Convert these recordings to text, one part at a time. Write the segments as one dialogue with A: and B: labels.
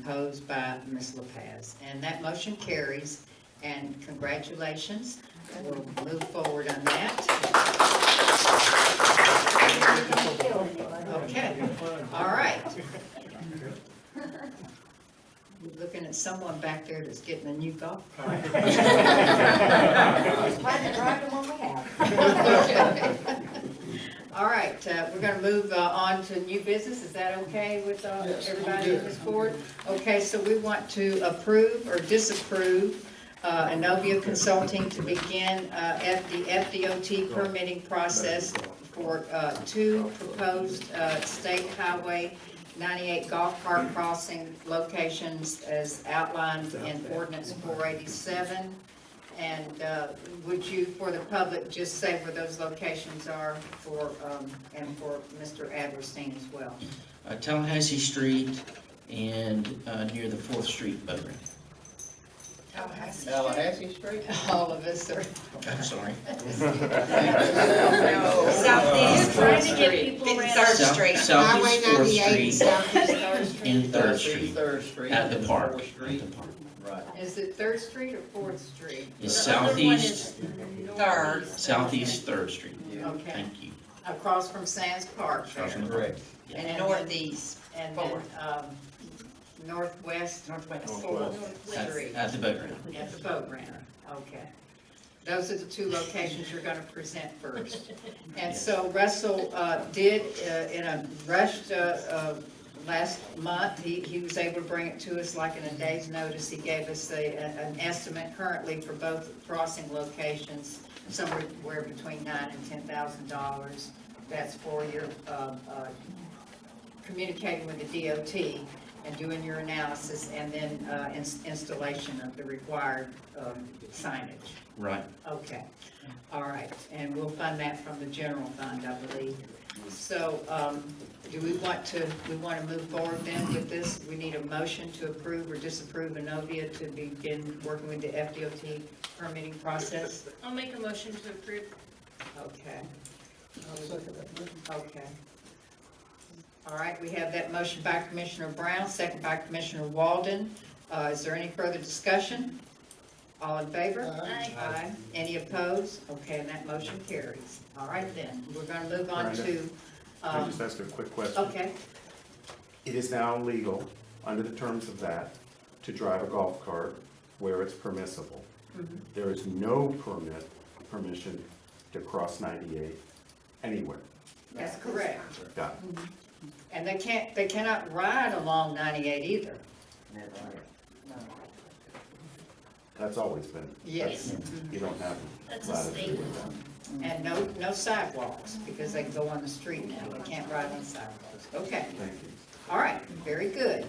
A: opposed by Ms. Lopez. And that motion carries, and congratulations. We'll move forward on that. Okay, all right. Looking at someone back there that's getting a new golf cart.
B: Trying to drive the one we have.
A: All right, uh, we're gonna move uh, on to new business, is that okay with uh,
C: Yes, I'm
A: everybody
C: good,
A: in this
C: I'm
A: board? Okay, so we want to approve or disapprove uh, Anovia Consulting to begin uh, F- the FDOT permitting process for uh, two proposed uh, state highway 98 golf cart crossing locations as outlined in ordinance 487. And uh, would you, for the public, just say where those locations are for, um, and for Mr. Adlerstein as well?
D: uh, Tallahassee Street and uh, near the Fourth Street boat ramp.
C: Tallahassee Street?
A: All of us are.
D: I'm sorry.
E: Southeast
A: Third
E: trying to get
A: Street.
E: people around.
B: Third
D: South-
B: Street.
D: Southeast Fourth Street
B: Southeast Third Street.
D: and Third Street
C: Third Street.
D: at the park,
C: Fourth
D: at
C: Street.
D: the park.
C: Right.
A: Is it Third Street or Fourth Street?
D: It's
E: The other one
D: southeast,
E: is
B: Third.
D: southeast Third Street.
C: Yeah.
A: Okay,
D: Thank you.
A: across from Sands Park there.
D: Across from the-
C: Correct.
A: And then-
B: Northeast.
A: And then,
B: Forward.
A: um, northwest. Northwest.
D: At
A: Street,
D: at the boat ramp.
A: at the boat ramp, okay. Those are the two locations you're gonna present first. And so Russell, uh, did, uh, in a rushed, uh, uh, last month, he, he was able to bring it to us like in a day's notice. He gave us a, an estimate currently for both crossing locations, somewhere between nine and ten thousand dollars. That's for your, um, uh, communicating with the DOT and doing your analysis and then uh, ins- installation of the required um, signage.
D: Right.
A: Okay, all right, and we'll fund that from the general fund, I believe. So um, do we want to, we want to move forward then with this? We need a motion to approve or disapprove Inovia to begin working with the FDOT permitting process?
E: I'll make a motion to approve.
A: Okay. Okay. All right, we have that motion by Commissioner Brown, second by Commissioner Walden. Uh, Is there any further discussion? All in favor?
E: Aye.
A: Aye. Any opposed? Okay, and that motion carries. All right then, we're going to move on
F: Brenda?
A: to,
F: Can I
A: um,
F: just ask a quick question?
A: okay,
F: It is now legal, under the terms of that, to drive a golf cart where it's permissible. There is no permit, permission to cross 98 anywhere.
A: that's correct.
F: Got it?
A: And they can't, they cannot ride along 98 either.
F: That's always been.
A: Yes.
F: that's- You don't have
E: That's a
F: latitude with that.
A: And no, no sidewalks, because they can go on the street now, they can't ride on sidewalks. Okay.
F: Thank you.
A: All right, very good.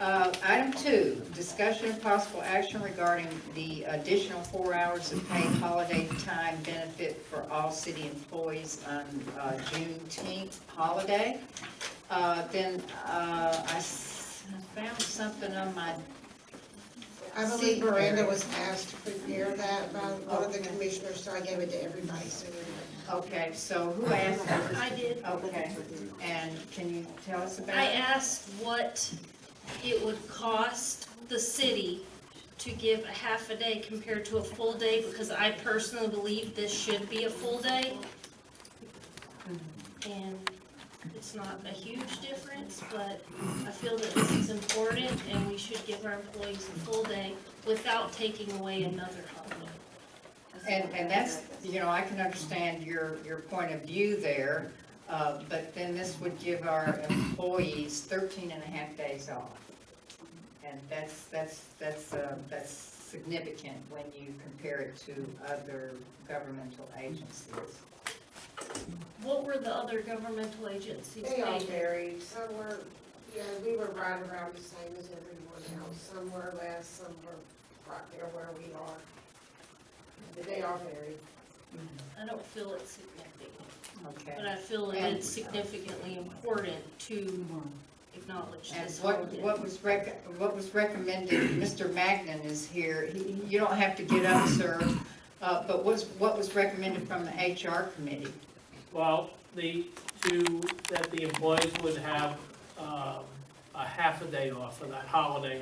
A: Uh, Item two, discussion of possible action regarding the additional four hours of paid holiday time benefit for all city employees on uh, Juneteenth holiday. Uh, Then uh, I s- I found something on my,
G: I believe Miranda was asked to prepare that by one of the commissioners, so I gave it to everybody, so everybody.
A: okay, so who asked? for this?
E: I did.
A: Okay, and can you tell us about?
E: I
A: it?
E: asked what it would cost the city to give a half a day compared to a full day, because I personally believe this should be a full day. And it's not a huge difference, but I feel that this is important, and we should give our employees a full day without taking away another holiday.
A: And, and that's, you know, I can understand your, your point of view there, uh, but then this would give our employees 13 and a half days off. And that's, that's, that's, uh, that's significant when you compare it to other governmental agencies.
E: What were the other governmental agencies
G: They all
E: paying?
G: varied, some were, yeah, we were right around the same as everyone else, some were less, some were right there where we are. But they all varied.
E: I don't feel it's significant. But
A: Okay.
E: I feel it is significantly important to acknowledge
A: And
E: this
A: what,
E: holiday.
A: what was rec, what was recommended, Mr. Magnan is here, He- he- you don't have to get up, sir, uh, but what's, what was recommended from the HR committee?
H: Well, the, to, that the employees would have, um, a half a day off for that holiday